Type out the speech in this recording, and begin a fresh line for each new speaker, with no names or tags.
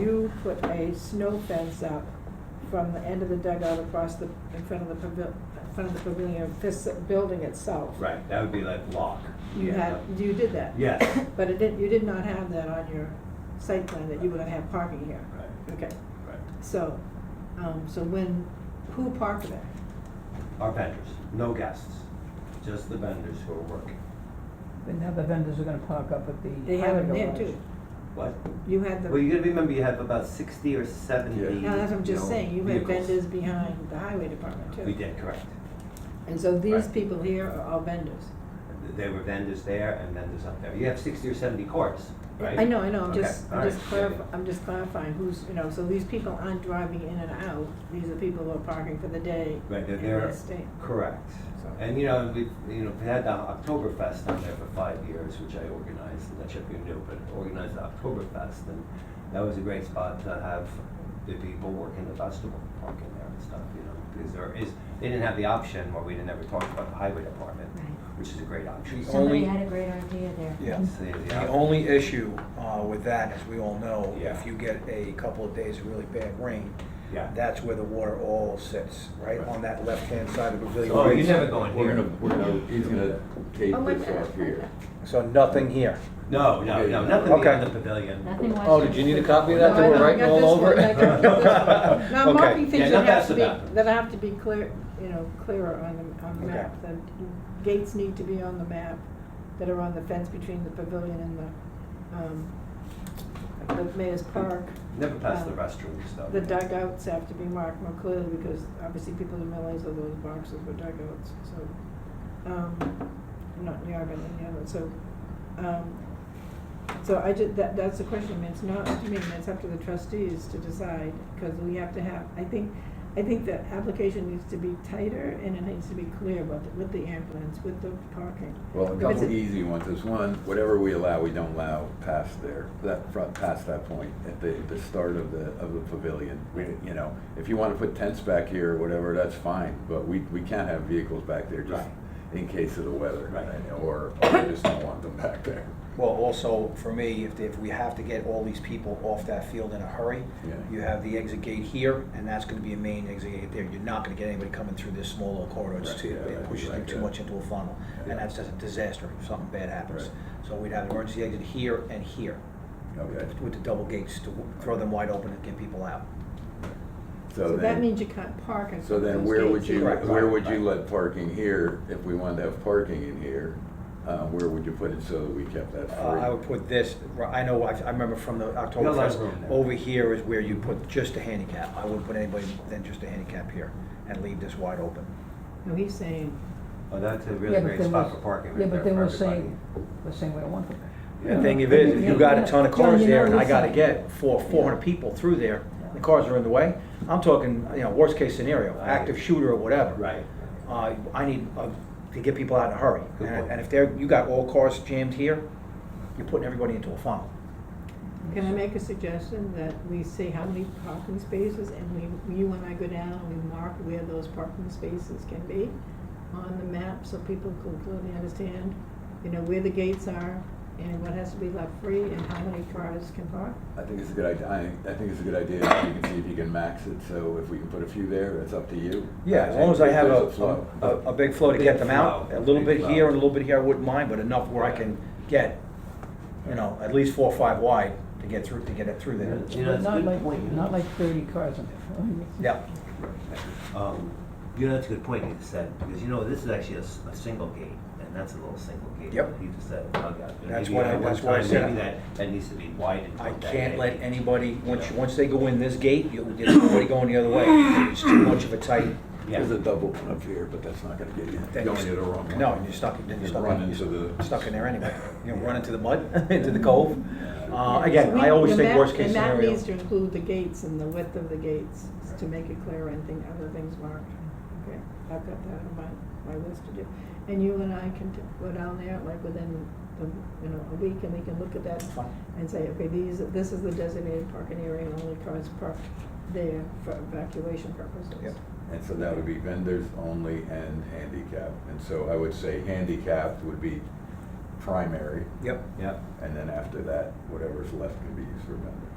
You put a snow fence up from the end of the dugout across the, in front of the pavil, in front of the pavilion, of this building itself.
Right, that would be like lock.
You had, you did that.
Yes,
But it did, you did not have that on your site plan, that you were gonna have parking here.
right,
Okay,
right.
so, um, so when, who parked there?
Our vendors, no guests, just the vendors who are working.
But now the vendors are gonna park up at the
They have
highway
them there
garage.
too.
What?
You had the,
Well, you gotta remember, you have about sixty or seventy.
no, that's what I'm
you
just
know,
saying, you had
vehicles.
vendors behind the highway department too.
We did, correct.
And so these
Right.
people here are all vendors.
There were vendors there and vendors up there. You have sixty or seventy cars, right?
I know, I know, I'm
Okay,
just,
all
I'm just
right, yeah,
clarifying, I'm just clarifying who's, you know, so these people aren't driving in and out, these are people who are parking for the day.
Right, they're
and
there.
staying.
Correct.
So-
And, you know, we've, you know, we had the Oktoberfest down there for five years, which I organized, I'm not sure if you knew, but organized the Oktoberfest, and that was a great spot to have the people working the festival, parking there and stuff, you know, because there is, they didn't have the option, or we didn't ever talk about the highway department,
Right.
which is a great option.
The
Somebody
only-
had a great idea there.
Yeah.
So, yeah.
The only issue uh, with that, as we all know,
Yeah.
if you get a couple of days of really bad rain,
Yeah.
that's where the water all sits, right
Right.
on that left-hand side of the pavilion.
Oh, you never go in
We're
here.
gonna, we're gonna, he's gonna
Oh,
take this off here.
So nothing here.
No, no, no, nothing
Okay.
beyond the pavilion.
Nothing was.
Oh, did you need a copy of that?
No, I
That we're
know, I
writing
got
all
this
over
one, I
it?
got this one. Now, I'm marking
Okay.
Yeah,
things
no,
that have
that's
to
enough.
be, that have to be clear, you know, clearer on the, on the
Okay.
map, the gates need to be on the map that are on the fence between the pavilion and the, um, the mayor's park.
Never past the
Um,
restrooms, though.
The dugouts have to be marked more clearly because obviously people didn't realize that those boxes were dugouts, so, um, not near, but in the other, so, um, so I did, that, that's the question, I mean, it's not up to me, I mean, it's up to the trustees to decide, because we have to have, I think, I think the application needs to be tighter and it needs to be clear about, the- with the ambulance, with the parking.
Well, a
Because
couple
it-
easy ones is one, whatever we allow, we don't allow past there, that front, past that point, at the, the start of the, of the pavilion. We, you know, if you wanna put tents back here or whatever, that's fine, but we, we can't have vehicles back there just in case of the weather.
Right.
and- Or, or we just don't want them back there.
Well, also, for me, if, if we have to get all these people off that field in a hurry,
Yeah.
you have the exit gate here, and that's gonna be a main exit gate there. You're not gonna get anybody coming through this small little corridor. It's
Right,
too,
yeah, that'd
it
be
pushes you
like
too
that.
much into a funnel,
Yeah.
and that's just a disaster if something bad happens.
Right.
So we'd have an emergency exit here and here.
Okay,
with the double gates to w- throw them wide open and get people out.
So
so
that
then,
means you can't park in
so
front of
then
those
where would
gates
you,
either.
Right,
where
right,
would you
right.
let parking here, if we wanted to have parking in here? Uh, where would you put it so that we kept that free?
Uh, I would put this, I know, I I remember from the
You got a lot of
Oktoberfest,
room there.
over here is where you put just a handicap. I wouldn't put anybody than just a handicap here and leave this wide open.
No, he's saying,
Oh, that's a
Yeah,
really
but
great
then
spot
we're-
for parking,
Yeah,
right there
but
for
then we're
everybody.
saying, we're saying we don't want them there.
The
Yeah.
thing of it, if you got a ton of
Yeah,
cars
you
there
know,
and I
you
gotta
said-
get four, four hundred people through there, the cars are in the way, I'm talking, you know, worst case scenario,
Right.
active shooter or whatever.
Right.
Uh, I need, uh, to get people out in a hurry.
Good
And-
point.
And if they're, you got all cars jammed here, you're putting everybody into a funnel.
Can I make a suggestion that we say how many parking spaces and we, you and I go down and we mark where those parking spaces can be on the map so people can clearly understand, you know, where the gates are and what has to be left free and how many cars can park?
I think it's a good idea, I, I think it's a good idea, if you can see if you can max it, so if we can put a few there, it's up to you.
Yeah, as long as I have
There's
a,
flow.
a, a big flow to
Big
get them out,
flow,
a little
big
bit
flow.
here and a little bit here, I wouldn't mind, but enough where I can get, you know, at least four or five wide to get through, to get it through there.
You know, it's a
Not
good
like-
point, you know.
Not like thirty cars in there.
Yeah,
Um, you know, that's a good point you just said, because you know, this is actually a, s- a single gate, and that's a little single gate.
Yep.
that You just said, oh, God. And
That's
maybe
what I-
at one
that's what I
time,
said.
Maybe that, that needs to be widened.
I
from that
can't let
gate.
anybody, once, you- once they go in this gate, you'll get everybody going the other way. It's too much of a tight,
There's
Yeah,
a double one up here, but that's not gonna get you,
Then
going
you-
to the wrong one.
no, you're stuck, then you're
You'd
stuck,
run
in-
into the-
you're stuck in there anyway. You know, run into the mud, into the cove. Uh, again,
We-
I always
the
think
map-
worst case scenario.
The map needs to include the gates and the width of the gates to make it clear and think other things marked. Okay, I've got that on my, my list to do. And you and I can t- go down there like within, the you know, a week and we can look at that
Fine.
and say, okay, these, this is the designated parking area and only cars parked there for evacuation purposes.
Yep.
And so that would be vendors only and handicap, and so I would say handicapped would be primary,
Yep.
yeah.
and then after that, whatever's left can be used for vendors.